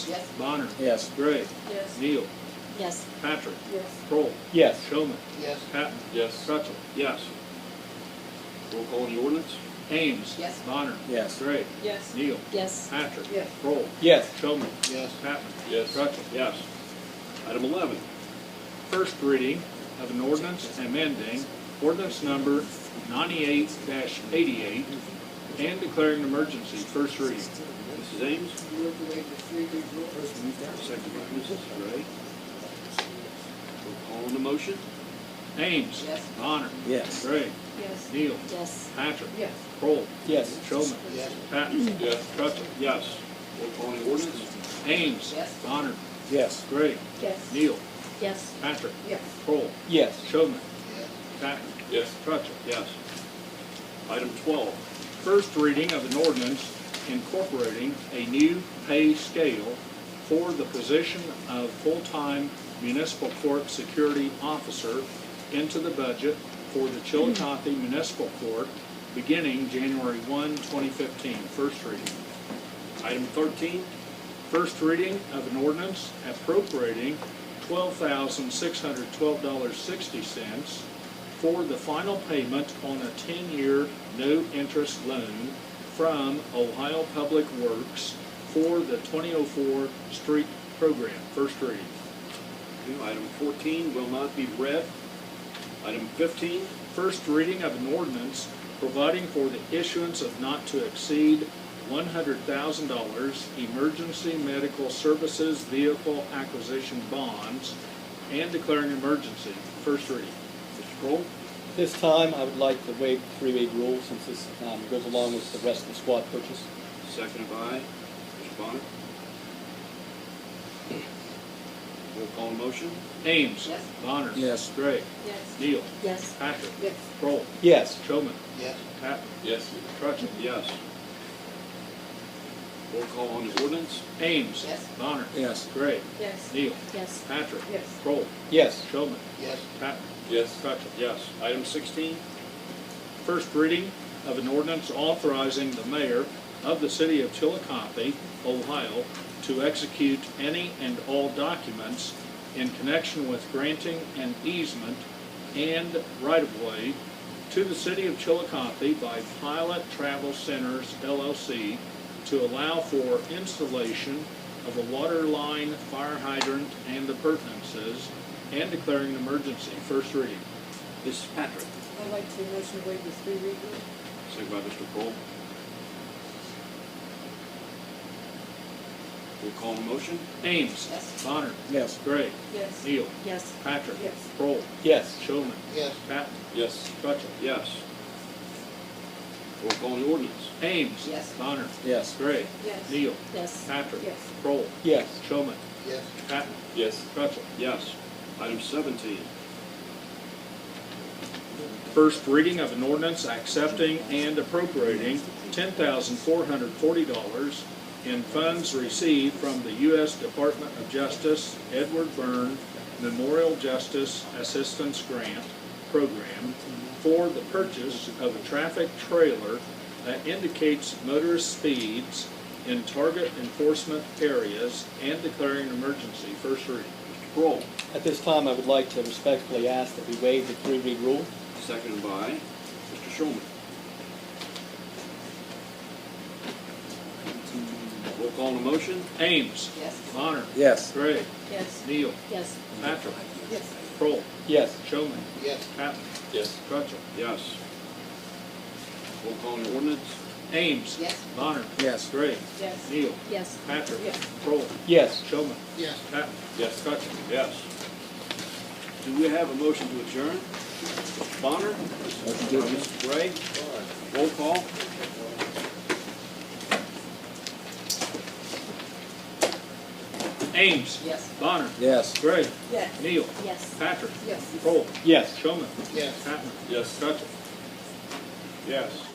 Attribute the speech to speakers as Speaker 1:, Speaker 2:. Speaker 1: Yes.
Speaker 2: Bonner.
Speaker 3: Yes.
Speaker 2: Gray.
Speaker 1: Yes.
Speaker 2: Neal.
Speaker 4: Yes.
Speaker 2: Patrick.
Speaker 1: Yes.
Speaker 2: Kroll.
Speaker 3: Yes.
Speaker 2: Showman.
Speaker 1: Yes.
Speaker 2: Patton.
Speaker 5: Yes.
Speaker 2: Truttle. Yes.
Speaker 5: Roll call on the ordinance?
Speaker 2: Ames.
Speaker 1: Yes.
Speaker 2: Bonner.
Speaker 3: Yes.
Speaker 2: Gray.
Speaker 1: Yes.
Speaker 2: Neal.
Speaker 4: Yes.
Speaker 2: Patrick.
Speaker 1: Yes.
Speaker 2: Kroll.
Speaker 3: Yes.
Speaker 2: Showman.
Speaker 1: Yes.
Speaker 2: Patton.
Speaker 5: Yes.
Speaker 2: Truttle. Yes.
Speaker 5: Item eleven,
Speaker 2: First reading of an ordinance amending ordinance number ninety-eight eighty-eight and declaring an emergency. First reading.
Speaker 5: Mrs. Ames,
Speaker 1: Move to waive the three read rule.
Speaker 5: second by Mrs. Gray. Roll call on the motion?
Speaker 2: Ames.
Speaker 1: Yes.
Speaker 2: Bonner.
Speaker 3: Yes.
Speaker 2: Gray.
Speaker 1: Yes.
Speaker 2: Neal.
Speaker 4: Yes.
Speaker 2: Patrick.
Speaker 1: Yes.
Speaker 2: Kroll.
Speaker 3: Yes.
Speaker 2: Showman.
Speaker 1: Yes.
Speaker 2: Patton.
Speaker 5: Yes.
Speaker 2: Truttle.
Speaker 5: Yes. Roll call on the ordinance?
Speaker 2: Ames.
Speaker 1: Yes.
Speaker 2: Bonner.
Speaker 3: Yes.
Speaker 2: Gray.
Speaker 1: Yes.
Speaker 2: Neal.
Speaker 4: Yes.
Speaker 2: Patrick.
Speaker 1: Yes.
Speaker 2: Kroll.
Speaker 3: Yes.
Speaker 2: Showman. Patton.
Speaker 5: Yes.
Speaker 2: Truttle.
Speaker 5: Yes. Item twelve,
Speaker 2: First reading of an ordinance incorporating a new pay scale for the position of full-time municipal court security officer into the budget for the Chillicothe Municipal Court beginning January 1, 2015. First reading.
Speaker 5: item thirteen,
Speaker 2: First reading of an ordinance appropriating twelve thousand six hundred twelve dollars sixty cents for the final payment on a ten-year no-interest loan from Ohio Public Works for the twenty oh four street program. First reading.
Speaker 5: New item fourteen will not be read. Item fifteen,
Speaker 2: First reading of an ordinance providing for the issuance of not to exceed one hundred thousand dollars emergency medical services vehicle acquisition bonds and declaring emergency. First reading.
Speaker 5: Mr. Kroll,
Speaker 3: This time, I would like to waive the three-way rule since this um, goes along with the rest of the squad purchase.
Speaker 5: seconded by Mr. Bonner. Roll call on the motion?
Speaker 2: Ames.
Speaker 1: Yes.
Speaker 2: Bonner.
Speaker 3: Yes.
Speaker 2: Gray.
Speaker 1: Yes.
Speaker 2: Neal.
Speaker 4: Yes.
Speaker 2: Patrick.
Speaker 1: Yes.
Speaker 2: Kroll.
Speaker 3: Yes.
Speaker 2: Showman.
Speaker 1: Yes.
Speaker 2: Patton.
Speaker 5: Yes.
Speaker 2: Trutchen.
Speaker 5: Yes. Roll call on the ordinance?
Speaker 2: Ames.
Speaker 1: Yes.
Speaker 2: Bonner.
Speaker 3: Yes.
Speaker 2: Gray.
Speaker 1: Yes.
Speaker 2: Neal.
Speaker 4: Yes.
Speaker 2: Patrick.
Speaker 1: Yes.
Speaker 2: Kroll.
Speaker 3: Yes.
Speaker 2: Showman.
Speaker 1: Yes.
Speaker 2: Patton.
Speaker 5: Yes.
Speaker 2: Trutchen.
Speaker 5: Yes. Item sixteen,
Speaker 2: First reading of an ordinance authorizing the mayor of the city of Chillicothe, Ohio, to execute any and all documents in connection with granting an easement and right-of-way to the city of Chillicothe by Pilot Travel Centers LLC to allow for installation of a water line, fire hydrant, and appurtenances, and declaring an emergency. First reading.
Speaker 5: Mrs. Patrick,
Speaker 1: I'd like to motion to waive the three read rule.
Speaker 5: seconded by Mr. Kroll. Roll call on the motion?
Speaker 2: Ames.
Speaker 1: Yes.
Speaker 2: Bonner.
Speaker 3: Yes.
Speaker 2: Gray.
Speaker 1: Yes.
Speaker 2: Neal.
Speaker 4: Yes.
Speaker 2: Patrick.
Speaker 1: Yes.
Speaker 2: Kroll.
Speaker 3: Yes.
Speaker 2: Showman.
Speaker 1: Yes.
Speaker 2: Patton.
Speaker 5: Yes.
Speaker 2: Truttle.
Speaker 5: Yes. Roll call on the ordinance?
Speaker 2: Ames.
Speaker 1: Yes.
Speaker 2: Bonner.
Speaker 3: Yes.
Speaker 2: Gray.
Speaker 1: Yes.
Speaker 2: Neal.
Speaker 4: Yes.
Speaker 2: Patrick.
Speaker 1: Yes.
Speaker 2: Kroll.
Speaker 3: Yes.
Speaker 2: Showman.
Speaker 1: Yes.
Speaker 2: Patton.
Speaker 5: Yes.
Speaker 2: Truttle.
Speaker 5: Yes. Item seventeen,
Speaker 2: First reading of an ordinance accepting and appropriating ten thousand four hundred forty dollars in funds received from the U.S. Department of Justice Edward Byrne Memorial Justice Assistance Grant Program for the purchase of a traffic trailer that indicates motorist speeds in target enforcement areas and declaring an emergency. First reading.
Speaker 5: Mr. Kroll,
Speaker 3: At this time, I would like to respectfully ask that we waive the three-read rule.
Speaker 5: seconded by Mr. Shulman. Roll call on the motion?
Speaker 2: Ames.
Speaker 1: Yes.
Speaker 2: Bonner.
Speaker 3: Yes.
Speaker 2: Gray.
Speaker 4: Yes.
Speaker 2: Neal.
Speaker 4: Yes.
Speaker 2: Patrick.
Speaker 1: Yes.
Speaker 2: Kroll.
Speaker 3: Yes.
Speaker 2: Showman.
Speaker 1: Yes.
Speaker 2: Patton.
Speaker 5: Yes.
Speaker 2: Truttle.
Speaker 5: Yes. Roll call on the ordinance?
Speaker 2: Ames.
Speaker 1: Yes.
Speaker 2: Bonner.
Speaker 3: Yes.
Speaker 2: Gray.
Speaker 1: Yes.
Speaker 2: Neal.
Speaker 4: Yes.
Speaker 2: Patrick.
Speaker 1: Yes.
Speaker 2: Kroll.
Speaker 3: Yes.
Speaker 2: Showman.
Speaker 1: Yes.
Speaker 2: Patton.
Speaker 5: Yes.
Speaker 2: Truttle.
Speaker 5: Yes. Do we have a motion to adjourn? Mr. Bonner?
Speaker 2: Uh,
Speaker 5: Mrs. Gray? Roll call?
Speaker 2: Ames.
Speaker 1: Yes.
Speaker 2: Bonner.
Speaker 3: Yes.
Speaker 2: Gray.
Speaker 1: Yes.
Speaker 2: Neal.
Speaker 4: Yes.
Speaker 2: Patrick.
Speaker 1: Yes.
Speaker 2: Kroll.
Speaker 3: Yes.
Speaker 2: Showman.
Speaker 1: Yes.
Speaker 2: Patton.
Speaker 5: Yes.
Speaker 2: Truttle.
Speaker 5: Yes.